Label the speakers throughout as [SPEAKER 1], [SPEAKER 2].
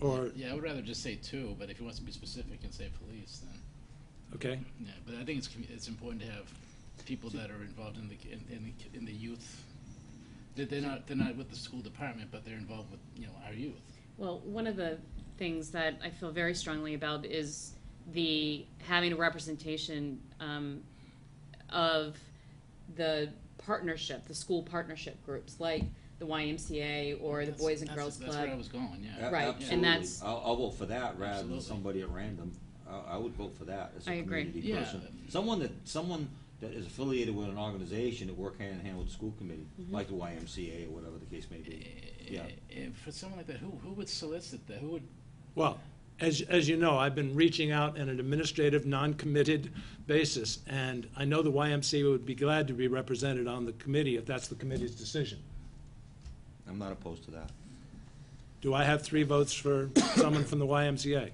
[SPEAKER 1] Or,
[SPEAKER 2] Yeah, I would rather just say two, but if he wants to be specific and say police, then,
[SPEAKER 1] okay,
[SPEAKER 2] yeah, but I think it's, commu- it's important to have people that are involved in the, in, in, the- in the youth. They- They're not, they're not with the school department, but they're involved with, you know, our youth.
[SPEAKER 3] Well, one of the things that I feel very strongly about is the having a representation um, of the partnership, the school partnership groups, like the YMCA or the
[SPEAKER 2] That's-
[SPEAKER 3] Boys and
[SPEAKER 2] that's-
[SPEAKER 3] Girls
[SPEAKER 2] That's where I
[SPEAKER 3] Club.
[SPEAKER 2] was going, yeah.
[SPEAKER 4] A-
[SPEAKER 3] Right, and
[SPEAKER 4] absolutely.
[SPEAKER 3] that's-
[SPEAKER 4] I'll, I'll vote for that rather
[SPEAKER 2] Absolutely.
[SPEAKER 4] than somebody at random. I, I would vote for that as a
[SPEAKER 3] I agree.
[SPEAKER 4] community
[SPEAKER 2] Yeah.
[SPEAKER 4] person. Someone that someone that is affiliated with an organization that work hand in hand with the school committee,
[SPEAKER 3] Mm-hmm.
[SPEAKER 4] like the YMCA or whatever the case may
[SPEAKER 2] Eh,
[SPEAKER 4] be. Yeah.
[SPEAKER 2] And eh, for someone like that, who, who would solicit that? Who would,
[SPEAKER 1] well, as, as you know, I've been reaching out on an administrative, non-committed basis, and I know the YMCA would be glad to be represented on the committee if that's the committee's decision.
[SPEAKER 4] I'm not opposed to that.
[SPEAKER 1] Do I have three votes for someone from the YMCA?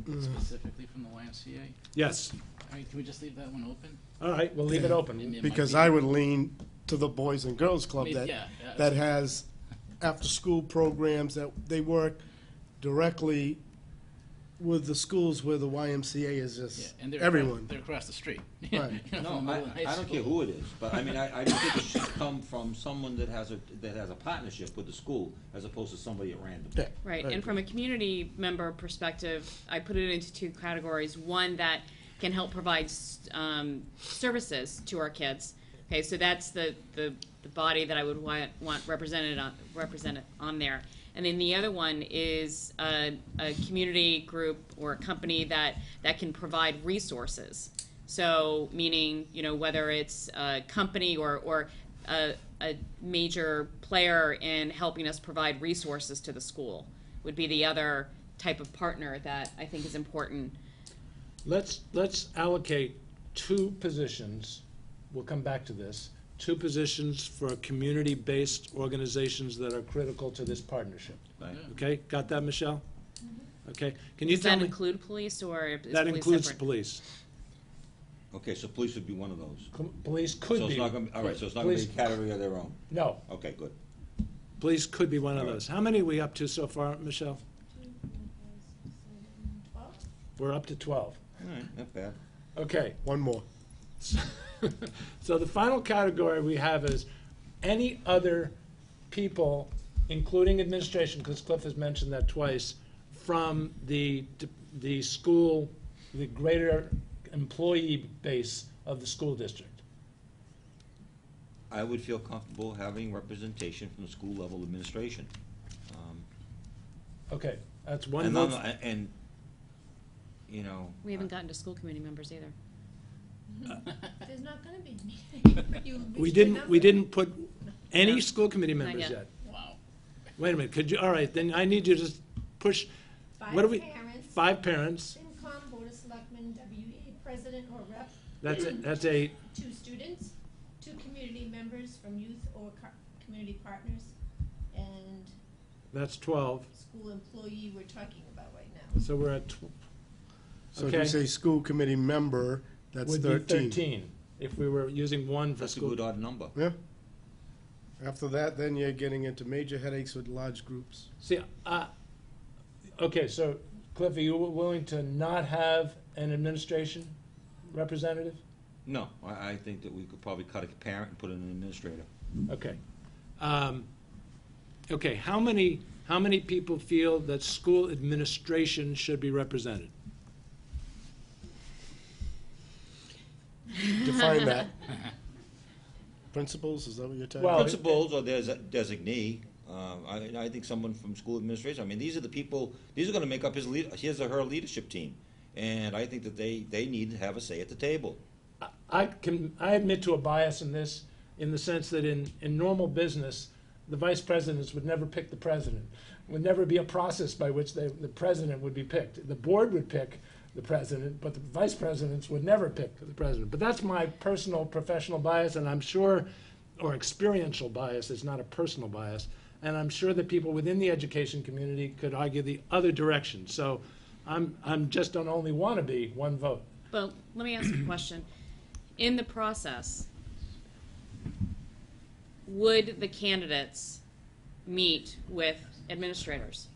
[SPEAKER 3] Mm-hmm.
[SPEAKER 2] specifically from the YMCA?
[SPEAKER 1] Yes.
[SPEAKER 2] I mean, can we just leave that one open?
[SPEAKER 1] All right, we'll leave it
[SPEAKER 2] I mean,
[SPEAKER 1] open.
[SPEAKER 2] it might
[SPEAKER 5] Because
[SPEAKER 2] be-
[SPEAKER 5] I would lean to the Boys and Girls
[SPEAKER 2] I
[SPEAKER 5] Club
[SPEAKER 2] mean,
[SPEAKER 5] that,
[SPEAKER 2] yeah, yeah,
[SPEAKER 5] that has after-school programs that they work directly with the schools where the YMCA is
[SPEAKER 2] Yeah,
[SPEAKER 5] just
[SPEAKER 2] and they're across-
[SPEAKER 5] everyone.
[SPEAKER 2] They're across the street.
[SPEAKER 5] Right.
[SPEAKER 2] You know,
[SPEAKER 4] No,
[SPEAKER 2] from
[SPEAKER 4] I,
[SPEAKER 2] Moreland High
[SPEAKER 4] I don't care
[SPEAKER 2] School.
[SPEAKER 4] who it is, but I mean, I, I just think it should come from someone that has a, that has a partnership with the school as opposed to somebody at random.
[SPEAKER 5] Yeah.
[SPEAKER 3] Right,
[SPEAKER 5] I
[SPEAKER 3] and from a community member perspective, I put it into two categories. One that can help provide s- um, services to our kids. Okay, so that's the, the, the body that I would want, want represented on, represented on there. And then the other one is a, a community group or a company that, that can provide resources. So, meaning, you know, whether it's a company or, or a, a major player in helping us provide resources to the school would be the other type of partner that I think is important.
[SPEAKER 1] Let's, let's allocate two positions, we'll come back to this, two positions for community-based organizations that are critical to this partnership.
[SPEAKER 4] Right?
[SPEAKER 1] Okay, got that, Michelle? Okay, can you
[SPEAKER 3] Does
[SPEAKER 1] tell
[SPEAKER 3] Mm-hmm. that
[SPEAKER 1] me?
[SPEAKER 3] include police or is
[SPEAKER 1] That
[SPEAKER 3] police
[SPEAKER 1] includes
[SPEAKER 3] separate?
[SPEAKER 1] police.
[SPEAKER 4] Okay, so police would be one of those.
[SPEAKER 1] Com- Police
[SPEAKER 4] so
[SPEAKER 1] could
[SPEAKER 4] it's
[SPEAKER 1] be,
[SPEAKER 4] not gonna, all right, so it's not gonna be a
[SPEAKER 1] Police-
[SPEAKER 4] category of their own.
[SPEAKER 1] no,
[SPEAKER 4] Okay, good.
[SPEAKER 1] police could be one of
[SPEAKER 4] All right.
[SPEAKER 1] those. How many are we up to so far, Michelle? We're up to twelve.
[SPEAKER 4] All right, not bad.
[SPEAKER 1] Okay.
[SPEAKER 5] One more.
[SPEAKER 1] So the final category we have is any other people, including administration, because Cliff has mentioned that twice, from the, the school, the greater employee base of the school district.
[SPEAKER 4] I would feel comfortable having representation from the school level administration. Um,
[SPEAKER 1] Okay, that's one
[SPEAKER 4] And, I'm-
[SPEAKER 1] vote.
[SPEAKER 4] and, and, you know.
[SPEAKER 3] We haven't gotten to school committee members either.
[SPEAKER 6] There's not gonna be a meeting. You
[SPEAKER 1] We
[SPEAKER 6] reached
[SPEAKER 1] didn't,
[SPEAKER 6] your
[SPEAKER 1] we
[SPEAKER 6] number.
[SPEAKER 1] didn't put any
[SPEAKER 3] No.
[SPEAKER 1] school committee
[SPEAKER 3] Not
[SPEAKER 1] members
[SPEAKER 3] yet.
[SPEAKER 1] yet.
[SPEAKER 2] Wow.
[SPEAKER 1] Wait a minute, could you, all right, then I need you to just push, what do we?
[SPEAKER 6] Five parents,
[SPEAKER 1] Five parents,
[SPEAKER 6] FinCom, Board of Selectmen, WEA president or rep,
[SPEAKER 1] that's, it- that's eight.
[SPEAKER 6] two students, two community members from youth or co- community partners, and
[SPEAKER 1] that's twelve,
[SPEAKER 6] school employee we're talking about right now.
[SPEAKER 1] so we're at tw-
[SPEAKER 5] So if you
[SPEAKER 1] Okay.
[SPEAKER 5] say school committee member, that's
[SPEAKER 1] would be
[SPEAKER 5] thirteen.
[SPEAKER 1] thirteen, if we were using one for
[SPEAKER 4] That's a
[SPEAKER 1] school.
[SPEAKER 4] good odd number.
[SPEAKER 5] Yeah. After that, then you're getting into major headaches with large groups.
[SPEAKER 1] See, uh, okay, so Cliff, are you wi- willing to not have an administration representative?
[SPEAKER 4] No, I, I think that we could probably cut a parent and put in an administrator.
[SPEAKER 1] Okay. Um, okay, how many, how many people feel that school administration should be represented?
[SPEAKER 5] Define that. Principals, is that what you're talking
[SPEAKER 1] Well,
[SPEAKER 5] about?
[SPEAKER 4] Principals or there's a designee, um, I, I think someone from school administration, I mean, these are the people, these are gonna make up his lead, his or her leadership team. And I think that they, they need to have a say at the table.
[SPEAKER 1] I- I can, I admit to a bias in this, in the sense that in, in normal business, the vice presidents would never pick the president. Would never be a process by which they, the president would be picked. The board would pick the president, but the vice presidents would never pick the president. But that's my personal professional bias, and I'm sure, or experiential bias, it's not a personal bias. And I'm sure that people within the education community could argue the other direction. So I'm, I'm just an only wannabe, one vote.
[SPEAKER 3] But let me ask a question. In the process, would the candidates meet with administrators?